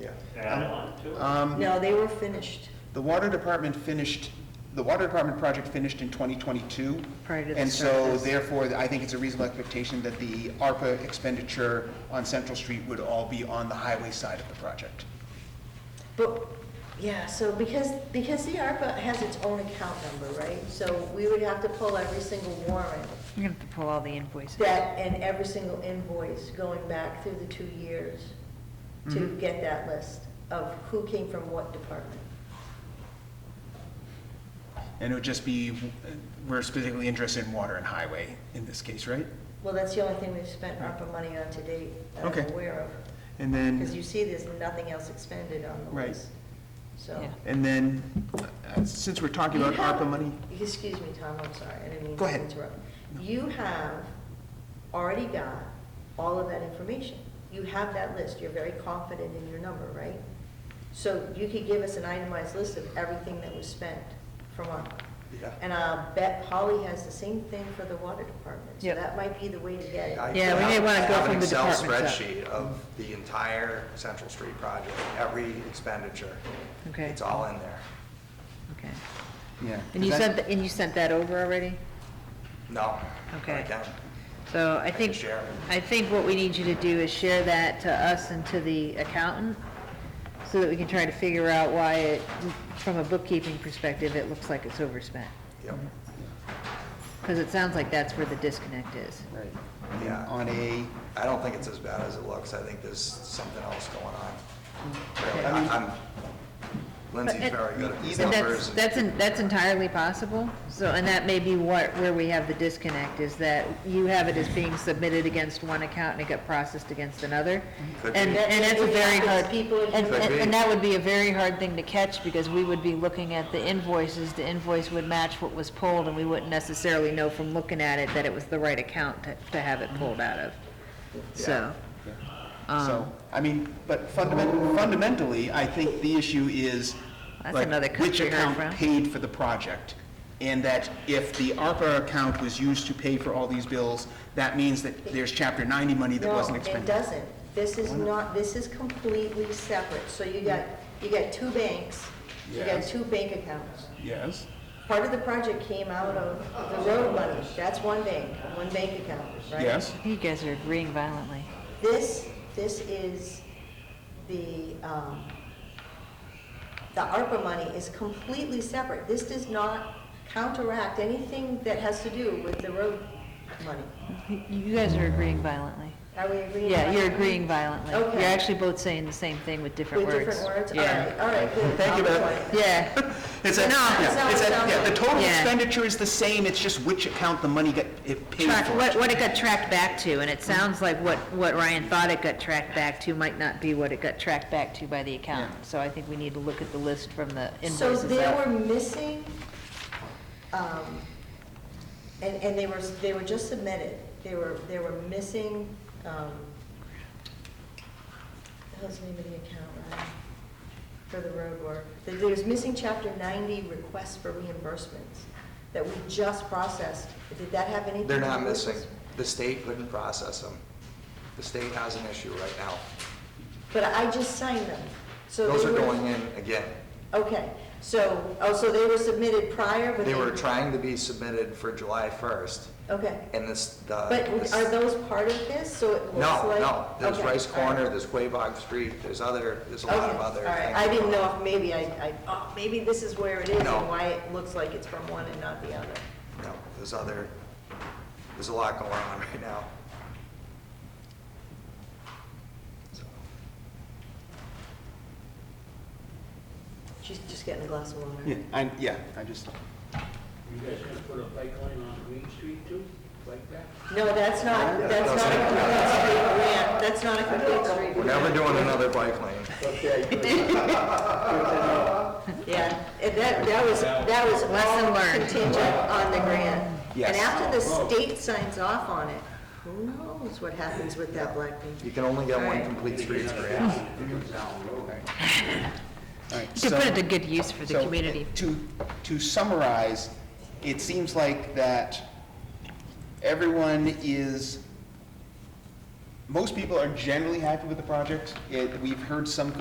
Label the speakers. Speaker 1: yeah.
Speaker 2: add on to it.
Speaker 1: Um,
Speaker 3: No, they were finished.
Speaker 1: The water department finished, the water department project finished in 2022.
Speaker 3: Prior to the
Speaker 1: And so
Speaker 3: surface.
Speaker 1: therefore, I think it's a reasonable expectation that the ARPA expenditure on Central Street would all be on the highway side of the project.
Speaker 3: But, yeah, so because, because the ARPA has its own account number, right? So we would have to pull every single warrant
Speaker 4: You're gonna have to pull all the invoices.
Speaker 3: that, and every single invoice going back through the two years to
Speaker 1: Mhm.
Speaker 3: get that list of who came from what department.
Speaker 1: And it would just be, we're specifically interested in water and highway in this case, right?
Speaker 3: Well, that's the only thing we've spent ARPA money on to date that
Speaker 1: Okay.
Speaker 3: I'm aware of.
Speaker 1: And
Speaker 3: Because you
Speaker 1: then,
Speaker 3: see, there's nothing else expended on the
Speaker 1: Right.
Speaker 3: list. So.
Speaker 4: Yeah.
Speaker 1: and then, uh, since we're talking about
Speaker 3: You have-
Speaker 1: ARPA money,
Speaker 3: Excuse me, Tom, I'm sorry, I didn't mean
Speaker 1: Go
Speaker 3: to
Speaker 1: ahead.
Speaker 3: interrupt. You have already got all of that information. You have that list, you're very confident in your number, right? So you could give us an itemized list of everything that was spent from ARPA.
Speaker 1: Yeah.
Speaker 3: And I'll bet Polly has the same thing for the water department, so
Speaker 4: Yep.
Speaker 3: that might be the way to get it.
Speaker 5: I
Speaker 4: Yeah, we
Speaker 5: have-
Speaker 4: may wanna
Speaker 5: I
Speaker 4: go
Speaker 5: have an
Speaker 4: from the
Speaker 5: Excel
Speaker 4: departments up.
Speaker 5: Spreadsheet of the entire Central Street project, every expenditure.
Speaker 4: Okay.
Speaker 5: It's all in there.
Speaker 4: Okay.
Speaker 1: yeah.
Speaker 4: And you
Speaker 1: That's-
Speaker 4: sent, th- and you sent that over already?
Speaker 5: No.
Speaker 4: Okay.
Speaker 5: I can.
Speaker 4: So I
Speaker 5: can
Speaker 4: think,
Speaker 5: share.
Speaker 4: I think what we need you to do is share that to us and to the accountant, so that we can try to figure out why it, from a bookkeeping perspective, it looks like it's overspent.
Speaker 5: Yep.
Speaker 4: Because it sounds like that's where the disconnect is.
Speaker 1: Right. And then
Speaker 5: Yeah.
Speaker 1: on a,
Speaker 5: I don't think it's as bad as it looks. I think there's something else going on. Really,
Speaker 1: I mean-
Speaker 5: I- I'm, Lindsay's
Speaker 4: But-
Speaker 3: uh,
Speaker 5: very good at these
Speaker 4: But that's,
Speaker 5: numbers.
Speaker 4: that's, en- that's entirely possible, so, and that may be what, where we have the disconnect, is that you have it as being submitted against one account and it got processed against another.
Speaker 5: Could
Speaker 4: And,
Speaker 5: be.
Speaker 4: and that's a very hard,
Speaker 3: People-
Speaker 4: and, and
Speaker 5: Could be.
Speaker 4: and that would be a very hard thing to catch, because we would be looking at the invoices, the invoice would match what was pulled, and we wouldn't necessarily know from looking at it that it was the right account to, to have it pulled out of, so. um,
Speaker 1: So, I mean, but fundamentally, fundamentally, I think the issue is,
Speaker 4: That's
Speaker 1: like,
Speaker 4: another
Speaker 1: which
Speaker 4: country
Speaker 1: account
Speaker 4: background.
Speaker 1: paid for the project? And that if the ARPA account was used to pay for all these bills, that means that there's Chapter 90 money that wasn't
Speaker 3: No, it
Speaker 1: expended.
Speaker 3: doesn't. This is not, this is completely separate. So you got, you got two banks, you got
Speaker 1: Yes.
Speaker 3: two bank accounts.
Speaker 1: Yes.
Speaker 3: Part of the project came out of the road money. That's one bank, one bank account, right?
Speaker 1: Yes.
Speaker 4: You guys are agreeing violently.
Speaker 3: This, this is the, um, the ARPA money is completely separate. This does not counteract anything that has to do with the road money.
Speaker 4: You guys are agreeing violently.
Speaker 3: Are we agreeing?
Speaker 4: Yeah,
Speaker 3: on
Speaker 4: you're
Speaker 3: that?
Speaker 4: agreeing violently.
Speaker 3: Okay.
Speaker 4: You're actually both saying the same thing with different
Speaker 3: With
Speaker 4: words.
Speaker 3: different words? All
Speaker 4: Yeah.
Speaker 3: right, all right, good.
Speaker 1: Thank you,
Speaker 3: I'll
Speaker 1: Beth.
Speaker 3: join.
Speaker 4: Yeah,
Speaker 1: It's a,
Speaker 3: No,
Speaker 1: yeah,
Speaker 3: sounds-
Speaker 1: it's a, yeah, the
Speaker 3: sounds-
Speaker 1: total
Speaker 4: Yeah.
Speaker 1: expenditure is the same, it's just which account the money got, it paid
Speaker 4: track, what,
Speaker 1: for.
Speaker 4: what it got tracked back to, and it sounds like what, what Ryan thought it got tracked back to might not be what it got tracked back to by the accountant. So I think we need to look at the list from the
Speaker 3: So
Speaker 4: invoices
Speaker 3: they
Speaker 4: up.
Speaker 3: were missing, um, and, and they were, they were just submitted, they were, they were missing, um, what was the name of the account, Ryan? For the road work, There- there's missing chapter ninety requests for reimbursements that we just processed, did that have anything?
Speaker 5: They're
Speaker 3: to
Speaker 5: not
Speaker 3: do with this?
Speaker 5: missing. The state couldn't process them. The state has an issue right now.
Speaker 3: But I just signed them, so.
Speaker 5: Those
Speaker 3: they
Speaker 5: are
Speaker 3: were-
Speaker 5: going in again.
Speaker 3: Okay, so, oh, so they were submitted prior, but they.
Speaker 5: They were trying to be submitted for July 1st,
Speaker 3: Okay.
Speaker 5: and this, the.
Speaker 3: But
Speaker 5: this-
Speaker 3: are those part of this, so it looks
Speaker 5: No,
Speaker 3: like?
Speaker 5: no, there's
Speaker 3: Okay,
Speaker 5: Rice
Speaker 3: all right.
Speaker 5: Corner, there's Quabog Street, there's other, there's a
Speaker 3: Okay,
Speaker 5: lot of other
Speaker 3: all right.
Speaker 5: things.
Speaker 3: I didn't know if maybe I, I, oh, maybe this is where it is
Speaker 5: No.
Speaker 3: and why it looks like it's from one and not the other.
Speaker 5: No, there's other, there's a lot going on right now. So,
Speaker 3: She's just getting a glass of water.
Speaker 1: Yeah, I, yeah, I just,
Speaker 6: You guys gonna put a bike lane on Green Street too, like that?
Speaker 3: No, that's not,
Speaker 5: Yeah,
Speaker 3: that's
Speaker 5: that's
Speaker 3: not a
Speaker 5: it.
Speaker 3: complete street grant, that's not a complete
Speaker 5: We're
Speaker 3: street.
Speaker 5: never doing another bike lane.
Speaker 3: Yeah, and that, that was, that was
Speaker 4: Lesson
Speaker 3: all
Speaker 4: learned.
Speaker 3: contingent on the grant.
Speaker 1: Yes.
Speaker 3: And after the state signs off on it, who knows what happens with that black paint?
Speaker 5: You can only get
Speaker 3: All
Speaker 5: one
Speaker 3: right.
Speaker 5: complete streets grant.
Speaker 1: all right.
Speaker 4: You could put
Speaker 1: so-
Speaker 4: it to good use for the
Speaker 1: So,
Speaker 4: community.
Speaker 1: To, to summarize, it seems like that everyone is, most people are generally happy with the project. It, we've heard some